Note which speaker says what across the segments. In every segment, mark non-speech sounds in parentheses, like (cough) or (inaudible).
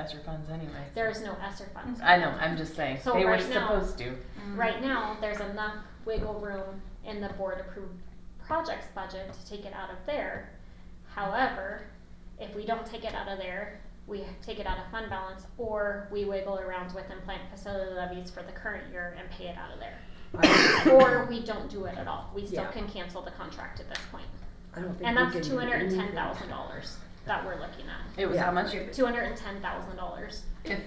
Speaker 1: ESSER funds anyway. so-
Speaker 2: There is no ESSER funds.
Speaker 1: I know, I'm just saying,
Speaker 2: So
Speaker 1: they were
Speaker 2: right now-
Speaker 1: supposed to.
Speaker 2: Right now, there's enough wiggle room in the board approved projects budget to take it out of there. However, if we don't take it out of there, we take it out of fund balance or we wiggle around with and plant facility levies for the current year and pay it out of there.
Speaker 3: I
Speaker 2: Or we don't do it at all. We still
Speaker 3: Yeah.
Speaker 2: can cancel the contract at this point.
Speaker 3: I don't think
Speaker 2: And
Speaker 3: we
Speaker 2: that's
Speaker 3: can do
Speaker 2: two hundred and ten thousand
Speaker 3: anything.
Speaker 2: dollars that we're looking at.
Speaker 1: It was
Speaker 3: Yeah.
Speaker 1: how much?
Speaker 2: Two hundred and ten thousand dollars.
Speaker 4: If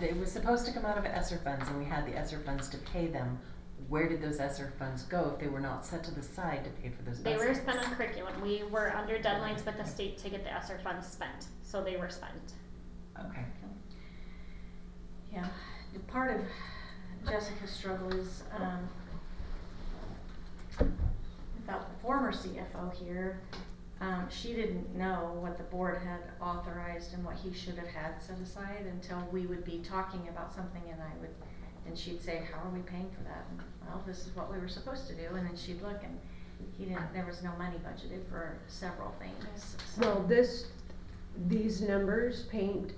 Speaker 4: they were supposed to come out of ESSER funds and we had the ESSER funds to pay them, where did those ESSER funds go if they were not set to the side to pay for those
Speaker 2: They were
Speaker 4: buses?
Speaker 2: spent on curriculum. We were under deadlines with the state to get the ESSER funds spent, so they were spent.
Speaker 4: Okay.
Speaker 5: Yeah, part of Jessica's struggle is, um, without the former CFO here, um, she didn't know what the board had authorized and what he should have had set aside until we would be talking about something and I would, and she'd say, how are we paying for that? And, Well, this is what we were supposed to do, and then she'd look and he didn't, there was no money budgeted for several things, so.
Speaker 3: Well, this, these numbers paint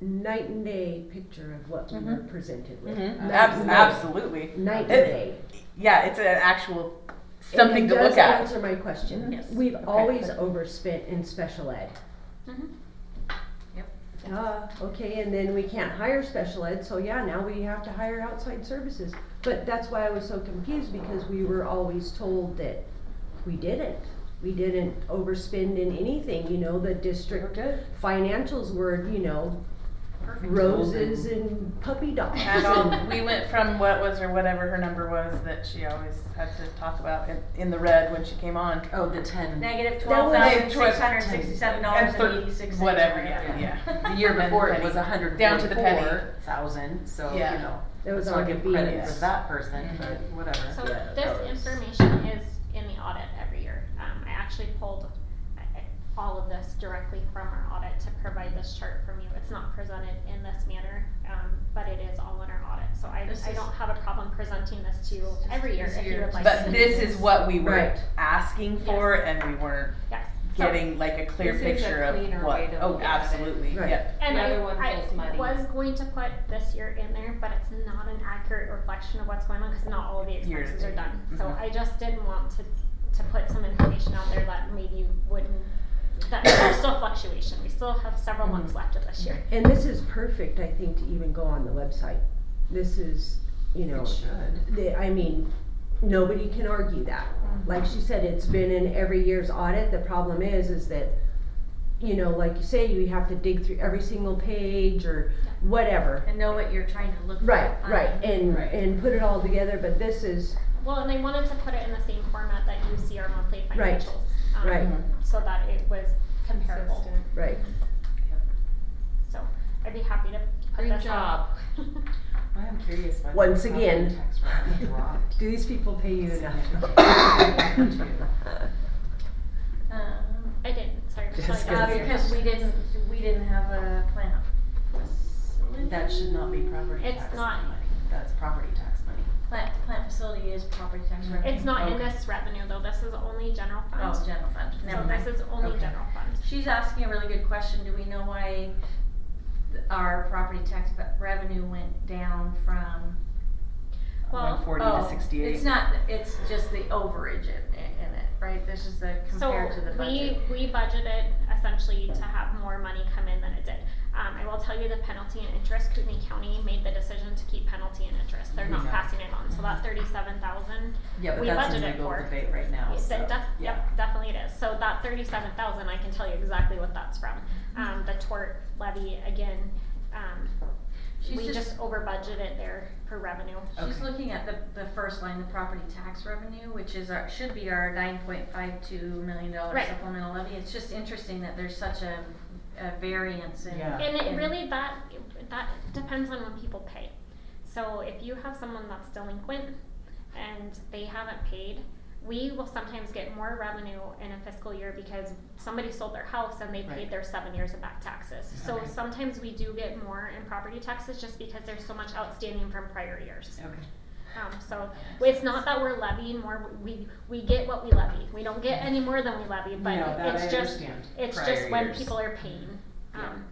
Speaker 3: night and day picture of what we were
Speaker 1: Mhm.
Speaker 3: presented with.
Speaker 1: Mhm.
Speaker 3: Mm-hmm. Night
Speaker 1: Abs-
Speaker 3: and day.
Speaker 1: absolutely.
Speaker 3: Night and
Speaker 1: It-
Speaker 3: day.
Speaker 1: Yeah, it's an actual
Speaker 3: And it
Speaker 1: something to
Speaker 3: does
Speaker 1: look at.
Speaker 3: Answer my question.
Speaker 5: Yes.
Speaker 3: We've
Speaker 1: Okay. Mm-hmm.
Speaker 3: always overspent in special ed.
Speaker 2: Mhm.
Speaker 3: Duh, okay, and then we can't hire special ed, so yeah, now we have to hire outside services. But that's why I was so confused, because we were always told that we didn't. We didn't overspend in anything, you know, the district financials were, you know,
Speaker 5: Perfect.
Speaker 3: roses and puppy dogs.
Speaker 1: And all,
Speaker 3: (laughs) and-
Speaker 1: we went from what was her, whatever her number was that she always had to talk about in, in the red when she came on.
Speaker 4: Oh, the ten,
Speaker 5: Negative
Speaker 3: That
Speaker 5: twelve
Speaker 3: was-
Speaker 5: thousand, six hundred and sixty-seven dollars and
Speaker 1: And
Speaker 5: eighty-six
Speaker 1: thir-
Speaker 5: cents.
Speaker 1: whatever, yeah, yeah.
Speaker 4: the year
Speaker 1: And
Speaker 4: before it
Speaker 1: penny.
Speaker 4: was a hundred
Speaker 1: Down to the penny.
Speaker 4: forty-four thousand, so, you
Speaker 1: Yeah.
Speaker 4: know,
Speaker 3: That was
Speaker 4: let's
Speaker 3: on
Speaker 4: not give credit
Speaker 3: convenience.
Speaker 4: for that person, but
Speaker 1: Mhm.
Speaker 4: whatever.
Speaker 2: So
Speaker 3: Yeah,
Speaker 2: this
Speaker 3: that was-
Speaker 2: information is in the audit every year. Um, I actually pulled uh, all of this directly from our audit to provide this chart from you. It's not presented in this manner, um, but it is all in our audit. So I,
Speaker 5: This
Speaker 2: I
Speaker 5: is-
Speaker 2: don't have a problem presenting this to you every year if you
Speaker 5: easier
Speaker 2: would
Speaker 5: to
Speaker 2: like.
Speaker 1: But
Speaker 5: see.
Speaker 1: this is what we were
Speaker 3: Right.
Speaker 1: asking for, and we weren't
Speaker 2: Yes. So-
Speaker 1: getting like a clear
Speaker 6: This is a
Speaker 1: picture of
Speaker 6: cleaner
Speaker 1: what.
Speaker 6: way to
Speaker 1: oh,
Speaker 6: look at it.
Speaker 1: absolutely.
Speaker 3: Right.
Speaker 1: Yep.
Speaker 2: And
Speaker 6: The
Speaker 2: I,
Speaker 6: other one
Speaker 2: I
Speaker 6: feels muddy.
Speaker 2: was going to put this year in there, but it's not an accurate reflection of what's going on because not all of the
Speaker 1: Year to
Speaker 2: expenses are
Speaker 1: date.
Speaker 2: done. So
Speaker 1: Mhm.
Speaker 2: I just didn't want to, to put some information out there that maybe you wouldn't, that there's still fluctuation. We still have several months left of this year.
Speaker 3: And this is perfect, I think, to even go on the website. This is, you know,
Speaker 4: It should.
Speaker 3: the, I mean, nobody can argue that. Like she said, it's been in every year's audit, the problem is, is that, you know, like you say, you have to dig through every single page or whatever.
Speaker 5: (laughs) And know what you're trying to look for.
Speaker 3: Right,
Speaker 5: on
Speaker 3: right, and,
Speaker 6: Right.
Speaker 3: and put it all together, but this is,
Speaker 2: Well, and I wanted to put it in the same format that you see our monthly
Speaker 3: Right.
Speaker 2: financials. um,
Speaker 3: Right.
Speaker 2: So that it was comparable.
Speaker 6: Consistent.
Speaker 3: right,
Speaker 2: So I'd be happy to put
Speaker 6: Great
Speaker 2: this out.
Speaker 4: I am curious why. the
Speaker 3: Once
Speaker 4: property
Speaker 3: again.
Speaker 4: Tax rate
Speaker 3: (laughs)
Speaker 4: dropped. (laughs)
Speaker 3: do these people pay you enough?
Speaker 4: significantly too.
Speaker 3: (laughs)
Speaker 5: Um,
Speaker 2: (laughs) I didn't, sorry. Michelle,
Speaker 4: Just
Speaker 2: I
Speaker 5: Uh,
Speaker 2: got your
Speaker 5: because we
Speaker 2: question.
Speaker 5: didn't, we didn't have a plan.
Speaker 4: That should not be property
Speaker 2: It's
Speaker 4: tax.
Speaker 2: not.
Speaker 4: money. That's property tax money.
Speaker 5: Plant, plant facility is property tax revenue.
Speaker 2: It's not in
Speaker 4: Okay.
Speaker 2: this revenue though, this is only general fund.
Speaker 5: Oh, general fund, never
Speaker 2: So
Speaker 5: mind.
Speaker 2: this is only
Speaker 4: Okay.
Speaker 2: general fund.
Speaker 5: She's asking a really good question, do we know why th- our property tax be- revenue went down from?
Speaker 2: Well,
Speaker 1: Went 40
Speaker 5: Oh,
Speaker 1: to 68.
Speaker 5: It's not, it's just the overage in, in it, right? This is the compared to the budget.
Speaker 2: So we, we budgeted essentially to have more money come in than it did. Um, I will tell you the penalty and interest, Kootenai County made the decision to keep penalty and interest, they're not
Speaker 4: Yeah.
Speaker 2: passing it on, so that thirty-seven thousand
Speaker 4: Yeah, but
Speaker 2: We
Speaker 4: that's a
Speaker 2: budgeted
Speaker 4: legal
Speaker 2: for it.
Speaker 4: debate right now,
Speaker 2: Yes,
Speaker 4: so,
Speaker 2: it def-
Speaker 4: yeah.
Speaker 2: Yep, definitely it is. So that thirty-seven thousand, I can tell you exactly what that's from. Um, the tort levy, again, um,
Speaker 5: She's
Speaker 2: we
Speaker 5: just-
Speaker 2: just over budgeted there for revenue.
Speaker 5: She's
Speaker 4: Okay.
Speaker 5: looking at the, the first line, the property tax revenue, which is our, should be our nine point five two million dollar
Speaker 2: Right.
Speaker 5: supplemental levy. It's just interesting that there's such a, a variance in.
Speaker 4: Yeah.
Speaker 2: And it
Speaker 5: in-
Speaker 2: really, that, that depends on when people pay. So if you have someone that's delinquent and they haven't paid, we will sometimes get more revenue in a fiscal year because somebody sold their house and they paid
Speaker 4: Right.
Speaker 2: their seven years of back taxes. So
Speaker 4: Okay.
Speaker 2: sometimes we do get more in property taxes just because there's so much outstanding from prior years.
Speaker 4: Okay.
Speaker 2: Um, so it's not that we're levying more, we, we get what we levy. We don't get any more than we levy, but
Speaker 4: No, that I
Speaker 2: it's just,
Speaker 4: understand.
Speaker 2: it's
Speaker 4: Prior
Speaker 2: just when
Speaker 4: years.
Speaker 2: people are paying. Um,